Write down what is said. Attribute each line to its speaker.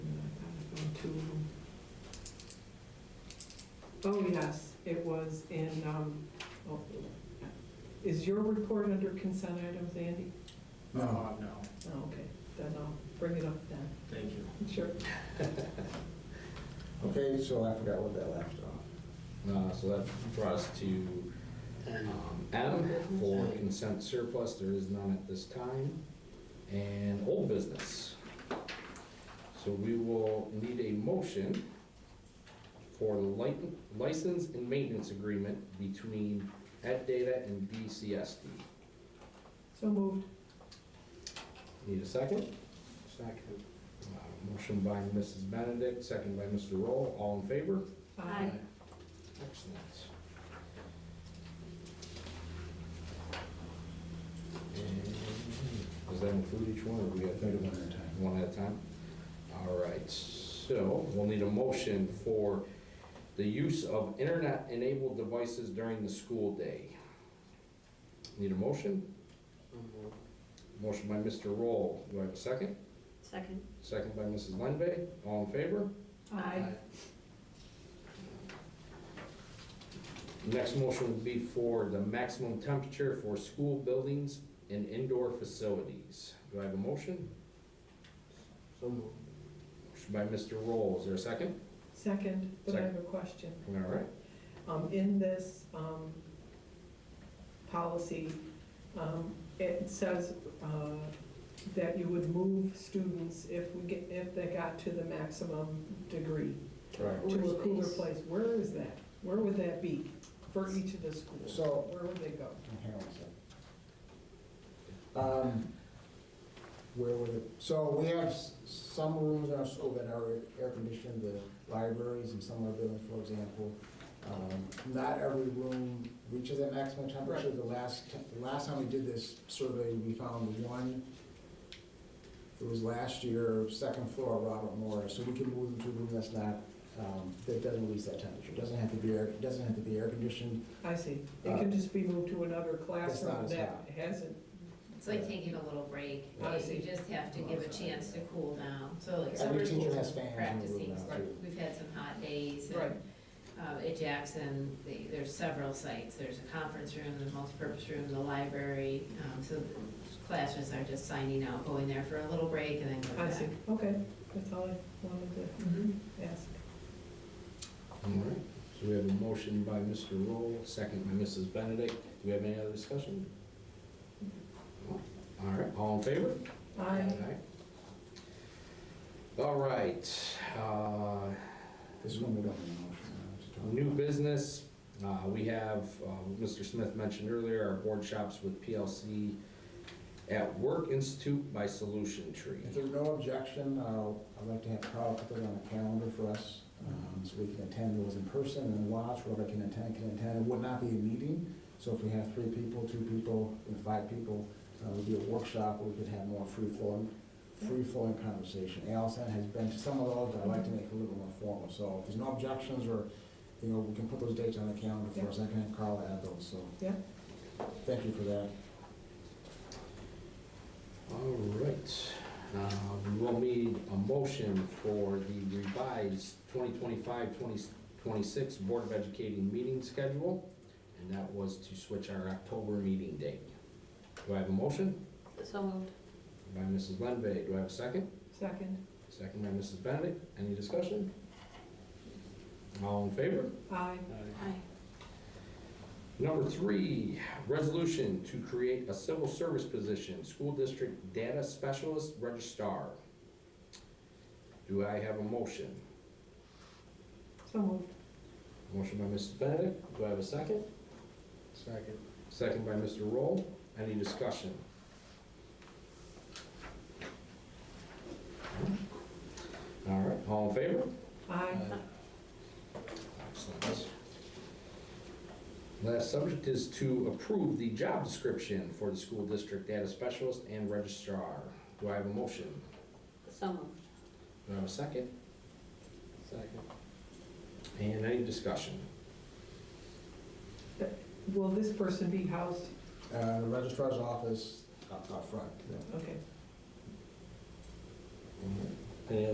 Speaker 1: to, oh, yes, it was in, um, oh, is your report under consent items, Andy?
Speaker 2: No.
Speaker 3: Uh, No,
Speaker 1: Oh, okay, then I'll bring it up then,
Speaker 3: thank you.
Speaker 1: sure.
Speaker 2: Okay, so I forgot what that left off.
Speaker 4: Uh, So that brought us to um, M for consent surplus, there is none at this time, and old business. So we will need a motion for the light- license and maintenance agreement between Ed Data and BCSD.
Speaker 1: So moved.
Speaker 4: Need a second?
Speaker 3: Second.
Speaker 4: Uh, Motion by Mrs. Benedict, second by Mr. Roll, all in favor?
Speaker 1: Aye.
Speaker 4: Excellent. And Does that include each one, or we got?
Speaker 2: Gotta do one at a time.
Speaker 4: One at a time? All right, so we'll need a motion for the use of internet-enabled devices during the school day. Need a motion? Motion by Mr. Roll, do I have a second?
Speaker 5: Second.
Speaker 4: Second by Mrs. Lenve, all in favor?
Speaker 1: Aye.
Speaker 4: Next motion would be for the maximum temperature for school buildings and indoor facilities. Do I have a motion?
Speaker 3: So moved.
Speaker 4: Motion by Mr. Roll, is there a second?
Speaker 1: Second, but I have
Speaker 4: Second.
Speaker 1: a question.
Speaker 4: All right,
Speaker 1: Um, In this um, policy, um, it says uh, that you would move students if we get, if they got to the maximum degree,
Speaker 4: Correct.
Speaker 1: to a cooler
Speaker 5: space.
Speaker 1: place. Where is that? Where would that be for each of the schools?
Speaker 2: So-
Speaker 1: Where would they go?
Speaker 2: Hang on a second. Um, Where would it, so we have s- some rooms in our school that are air-conditioned, the libraries and some of them, for example. Um, Not every room reaches that maximum temperature.
Speaker 1: Right.
Speaker 2: The last, t- the last time we did this survey, we found one, it was last year, second floor, Robert Morris. So we can move them to a room that's not, um, that doesn't reach that temperature. Doesn't have to be, air. doesn't have to be air-conditioned.
Speaker 1: I see. It can just be moved to another classroom
Speaker 2: Uh, as
Speaker 1: that
Speaker 2: hot.
Speaker 1: hasn't,
Speaker 5: It's like taking a little break.
Speaker 1: I
Speaker 5: You
Speaker 1: see.
Speaker 5: you just have to give a chance to cool down. So like summer
Speaker 2: Every teacher
Speaker 5: school's
Speaker 2: has fans in the room
Speaker 5: practicing,
Speaker 2: now, too.
Speaker 5: we've had some hot days. and,
Speaker 1: right,
Speaker 5: uh, At Jackson, the- there's several sites. There's a conference room, the multipurpose room, the library. um, So the classes are just signing out, going there for a little break and then going
Speaker 1: I
Speaker 5: back.
Speaker 1: see. Mm-hmm. Okay, that's all I wanted
Speaker 5: Mhm.
Speaker 1: to ask.
Speaker 4: all right. So we have a motion by Mr. Roll, second by Mrs. Benedict. Do we have any other discussion? All right, all in favor?
Speaker 1: Aye.
Speaker 4: All right, uh,
Speaker 2: This is when we don't need a motion. I have to talk.
Speaker 4: New business, uh, we have, uh, Mr. Smith mentioned earlier, our board shops with PLC at Work Institute by Solution Tree.
Speaker 2: If there's no objection, I'll- I'd like to have Carl put that on the calendar for us, um, so we can attend those in person and watch, whoever can attend, can attend. It would not be a meeting, so if we have three people, two people, and five people, uh, it would be a workshop, where we could have more free-flowing, free-flowing conversation. Allison has been to some of those, but I'd like to make it a little more formal, so if there's no objections, or, you know, we can put those dates on the calendar for us, I can have Carl add those, so.
Speaker 1: Yeah.
Speaker 2: Thank you for that.
Speaker 4: All right, uh, we'll need a motion for the revised 2025-2026 Board of Educating meeting schedule, and that was to switch our October meeting date. Do I have a motion?
Speaker 5: So moved.
Speaker 4: By Mrs. Lenve, do I have a second?
Speaker 1: Second,
Speaker 4: Second by Mrs. Benedict. Any discussion? All in favor?
Speaker 1: aye.
Speaker 5: Aye.
Speaker 4: Number three, resolution to create a civil service position, school district data specialist registrar. Do I have a motion?
Speaker 1: So moved.
Speaker 4: Motion by Mrs. Benedict. Do I have a second?
Speaker 3: Second.
Speaker 4: Second by Mr. Roll. Any discussion? All right, all in favor?
Speaker 1: Aye.
Speaker 4: Excellent. Last subject is to approve the job description for the school district data specialist and registrar. Do I have a motion?
Speaker 5: So moved.
Speaker 4: Do I have a second?
Speaker 3: Second.
Speaker 4: And any discussion?
Speaker 1: Will this person be housed?
Speaker 2: Uh, Registrar's office, up up front.
Speaker 1: Okay,